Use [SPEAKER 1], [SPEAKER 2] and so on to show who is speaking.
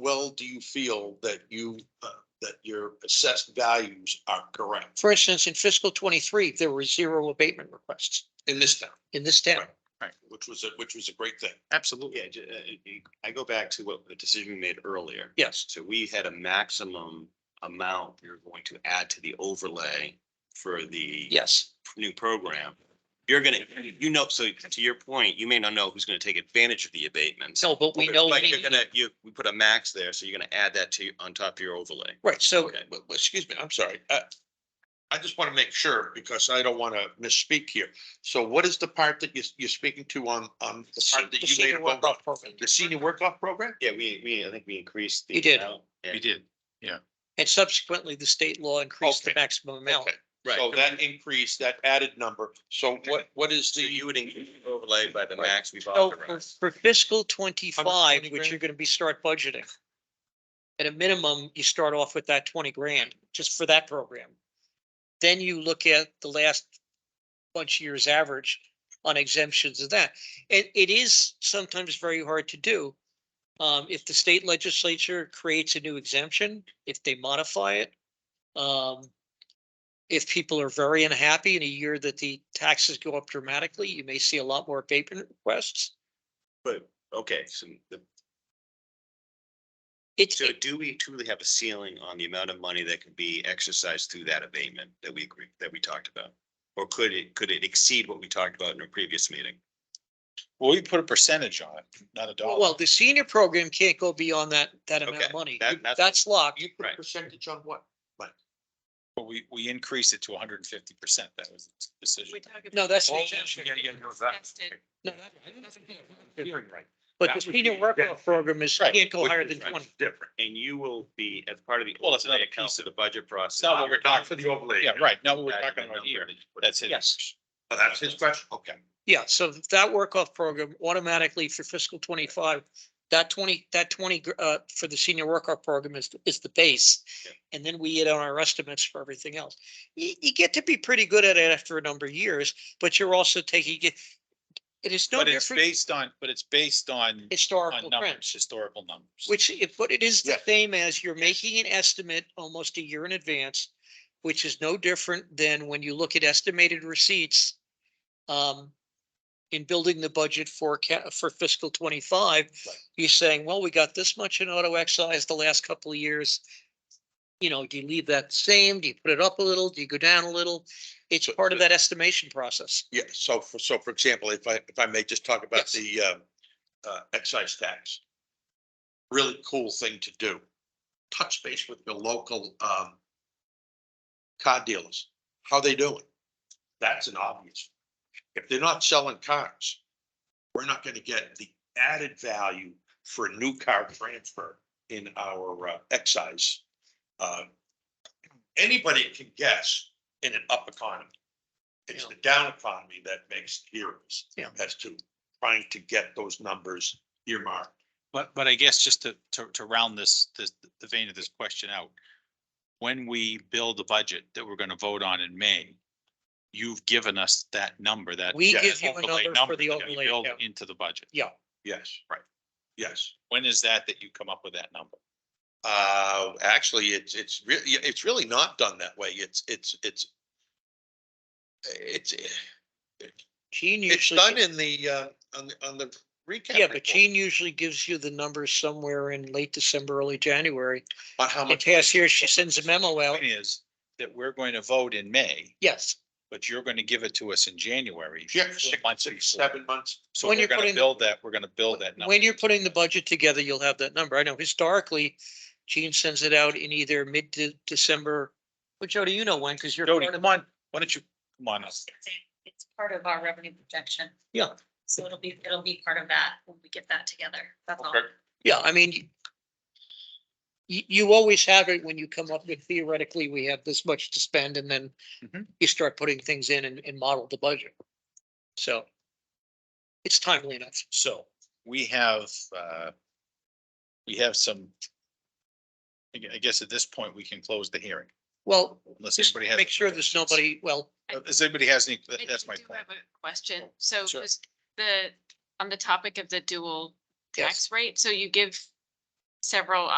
[SPEAKER 1] well do you feel that you, uh, that your assessed values are correct
[SPEAKER 2] For instance, in fiscal twenty-three, there were zero abatement requests
[SPEAKER 1] in this town?
[SPEAKER 2] in this town.
[SPEAKER 1] Which was a, which was a great thing.
[SPEAKER 3] Absolutely.
[SPEAKER 4] Yeah, ju- uh, it- it- I go back to what the decision we made earlier.
[SPEAKER 2] Yes.
[SPEAKER 4] So we had a maximum amount we were going to add to the overlay for the
[SPEAKER 2] Yes.
[SPEAKER 4] new program. You're gonna, you know, so to your point, you may not know who's gonna take advantage of the abatement.
[SPEAKER 2] No, but we know.
[SPEAKER 4] But
[SPEAKER 2] we-
[SPEAKER 4] you're gonna, you, we put a max there, so you're gonna add that to, on top of your overlay.
[SPEAKER 2] Right, so
[SPEAKER 1] Okay, but, but excuse me, I'm sorry. Uh, I just want to make sure because I don't want to misspeak here. So what is the part that you, you're speaking to on, on the part
[SPEAKER 2] the
[SPEAKER 1] that you made?
[SPEAKER 2] senior work
[SPEAKER 1] about
[SPEAKER 2] off program.
[SPEAKER 1] The senior work off program?
[SPEAKER 4] Yeah, we, we, I think we increased. the
[SPEAKER 2] You did.
[SPEAKER 4] amount.
[SPEAKER 3] We did.
[SPEAKER 2] And subsequently, the state law increased the
[SPEAKER 1] Okay.
[SPEAKER 2] maximum amount.
[SPEAKER 1] Okay,
[SPEAKER 4] Right.
[SPEAKER 1] so that increase, that added number. So what, what is
[SPEAKER 4] So
[SPEAKER 1] the,
[SPEAKER 4] you would increase the overlay by the
[SPEAKER 1] Right.
[SPEAKER 4] max we've
[SPEAKER 2] So for-
[SPEAKER 4] authorized.
[SPEAKER 2] for fiscal twenty-five, which
[SPEAKER 1] grand?
[SPEAKER 2] you're gonna be start budgeting. At a minimum, you start off with that twenty grand, just for that program. Then you look at the last bunch of years' average on exemptions of that. It, it is sometimes very hard to do. Um, if the state legislature creates a new exemption, if they modify it, um, if people are very unhappy in a year that the taxes go up dramatically, you may see a lot more abatement requests.
[SPEAKER 4] But, okay, so the
[SPEAKER 2] It,
[SPEAKER 4] So do we truly have a ceiling on the amount of money that can be exercised through that abatement that we agree, that we talked about? Or could it, could it exceed what we talked about in a previous meeting?
[SPEAKER 3] Well, we put a percentage on it, not a dollar.
[SPEAKER 2] well, the senior program can't go beyond that, that amount of
[SPEAKER 4] Okay,
[SPEAKER 2] money.
[SPEAKER 4] that- that's-
[SPEAKER 2] That's locked.
[SPEAKER 1] you put a
[SPEAKER 4] Right.
[SPEAKER 1] percentage on what?
[SPEAKER 3] But we, we increased it to hundred and fifty percent. That was the decision.
[SPEAKER 2] No, that's an
[SPEAKER 1] Oh,
[SPEAKER 2] exemption.
[SPEAKER 1] yeah, yeah, no, that-
[SPEAKER 2] No, that-
[SPEAKER 1] Hearing right.
[SPEAKER 2] But the
[SPEAKER 1] That's what
[SPEAKER 2] senior
[SPEAKER 1] you-
[SPEAKER 2] work
[SPEAKER 1] yeah.
[SPEAKER 2] off program is,
[SPEAKER 3] Right,
[SPEAKER 2] can't go
[SPEAKER 4] which
[SPEAKER 2] higher
[SPEAKER 4] is
[SPEAKER 2] than
[SPEAKER 4] right.
[SPEAKER 2] twenty.
[SPEAKER 1] Different.
[SPEAKER 4] And you will be, as part of the.
[SPEAKER 3] Well, it's another
[SPEAKER 4] overlay account
[SPEAKER 3] piece
[SPEAKER 4] for the budget process.
[SPEAKER 3] not what we're
[SPEAKER 1] Not for the overlay.
[SPEAKER 3] Yeah, right. Now what
[SPEAKER 4] Adding
[SPEAKER 3] we're
[SPEAKER 4] the
[SPEAKER 3] talking about
[SPEAKER 4] number
[SPEAKER 3] here,
[SPEAKER 4] that you put in.
[SPEAKER 3] that's it.
[SPEAKER 2] Yes.
[SPEAKER 1] Oh, that's his question? Okay.
[SPEAKER 2] Yeah, so that work off program automatically for fiscal twenty-five, that twenty, that twenty, gr- uh, for the senior work off program is, is the base.
[SPEAKER 4] Yeah.
[SPEAKER 2] And then we hit on our estimates for everything else. You, you get to be pretty good at it after a number of years, but you're also taking it. It is no
[SPEAKER 3] But it's
[SPEAKER 2] different
[SPEAKER 3] based on, but it's based on, on
[SPEAKER 2] historical
[SPEAKER 3] numbers,
[SPEAKER 2] trends.
[SPEAKER 3] historical numbers.
[SPEAKER 2] Which, if, but it is the
[SPEAKER 1] Yeah.
[SPEAKER 2] same as you're making an estimate almost a year in advance, which is no different than when you look at estimated receipts. Um, in building the budget for ca- for fiscal twenty-five,
[SPEAKER 1] Right.
[SPEAKER 2] you're saying, well, we got this much in auto excise the last couple of years. You know, do you leave that the same? Do you put it up a little? Do you go down a little? It's
[SPEAKER 1] So
[SPEAKER 2] part of
[SPEAKER 1] the-
[SPEAKER 2] that estimation process.
[SPEAKER 1] Yeah, so for, so for example, if I, if I may just talk about
[SPEAKER 2] Yes.
[SPEAKER 1] the uh, uh, excise tax. Really cool thing to do. Touch base with your local um. Car dealers, how they doing? That's an obvious. If they're not selling cars, we're not gonna get the added value for a new car transfer in our uh, excise. Uh, Anybody can guess in an up economy. It's
[SPEAKER 2] Yeah.
[SPEAKER 1] the down economy that makes heroes.
[SPEAKER 2] Yeah.
[SPEAKER 1] As to trying to get those numbers earmarked.
[SPEAKER 3] But, but I guess just to, to, to round this, this, the vein of this question out. When we build the budget that we're gonna vote on in May, you've given us that number, that.
[SPEAKER 2] We
[SPEAKER 1] yeah,
[SPEAKER 2] give you a
[SPEAKER 3] overlay
[SPEAKER 2] number for
[SPEAKER 3] number
[SPEAKER 2] the
[SPEAKER 3] that we
[SPEAKER 2] overlay
[SPEAKER 3] build
[SPEAKER 2] account.
[SPEAKER 3] Into the budget.
[SPEAKER 2] Yeah,
[SPEAKER 1] Yes.
[SPEAKER 3] Right.
[SPEAKER 1] Yes.
[SPEAKER 3] When is that that you come up with that number?
[SPEAKER 1] Uh, actually, it's, it's really, it's really not done that way. It's, it's, it's. It's,
[SPEAKER 2] Gene
[SPEAKER 1] it's
[SPEAKER 2] usually.
[SPEAKER 1] done in the, uh, on the, on the recap.
[SPEAKER 2] Yeah, but
[SPEAKER 1] report
[SPEAKER 2] Gene usually gives you the numbers somewhere in late December, early January.
[SPEAKER 1] On how
[SPEAKER 2] In
[SPEAKER 1] much.
[SPEAKER 2] past years, she sends a memo out.
[SPEAKER 3] Point is that we're going to vote in May,
[SPEAKER 2] Yes,
[SPEAKER 3] but you're gonna give it to us in January.
[SPEAKER 1] Yeah,
[SPEAKER 3] four
[SPEAKER 1] six
[SPEAKER 3] months
[SPEAKER 1] six,
[SPEAKER 3] before.
[SPEAKER 1] seven months.
[SPEAKER 3] So
[SPEAKER 2] When
[SPEAKER 3] we're
[SPEAKER 2] you're
[SPEAKER 3] gonna
[SPEAKER 2] putting-
[SPEAKER 3] build that, we're gonna build that number.
[SPEAKER 2] when you're putting the budget together, you'll have that number. I know historically, Gene sends it out in either mid-December. Well, Jody, you know when, because you're.
[SPEAKER 3] Jody,
[SPEAKER 2] part of-
[SPEAKER 3] come on, why don't you, come on up.
[SPEAKER 5] It's part of our revenue projection.
[SPEAKER 2] Yeah.
[SPEAKER 5] So it'll be, it'll be part of that when we get that together. That's all.
[SPEAKER 3] Okay.
[SPEAKER 2] Yeah, I mean, you, you always have it when you come up with theoretically, we have this much to spend and then
[SPEAKER 3] Mhm.
[SPEAKER 2] you start putting things in and, and model the budget. So it's timely enough.
[SPEAKER 3] So we have, uh, we have some. I gue- I guess at this point, we can close the hearing.
[SPEAKER 2] Well,
[SPEAKER 3] Unless
[SPEAKER 2] Just
[SPEAKER 3] anybody has.
[SPEAKER 2] make sure there's nobody, well,
[SPEAKER 3] Uh, Does anybody has any,
[SPEAKER 6] I
[SPEAKER 3] that- that's my
[SPEAKER 6] do
[SPEAKER 3] point.
[SPEAKER 6] have a Question, so
[SPEAKER 3] Sure.
[SPEAKER 6] just the, on the topic of the dual
[SPEAKER 2] yes,
[SPEAKER 6] tax rate, so you give
[SPEAKER 5] several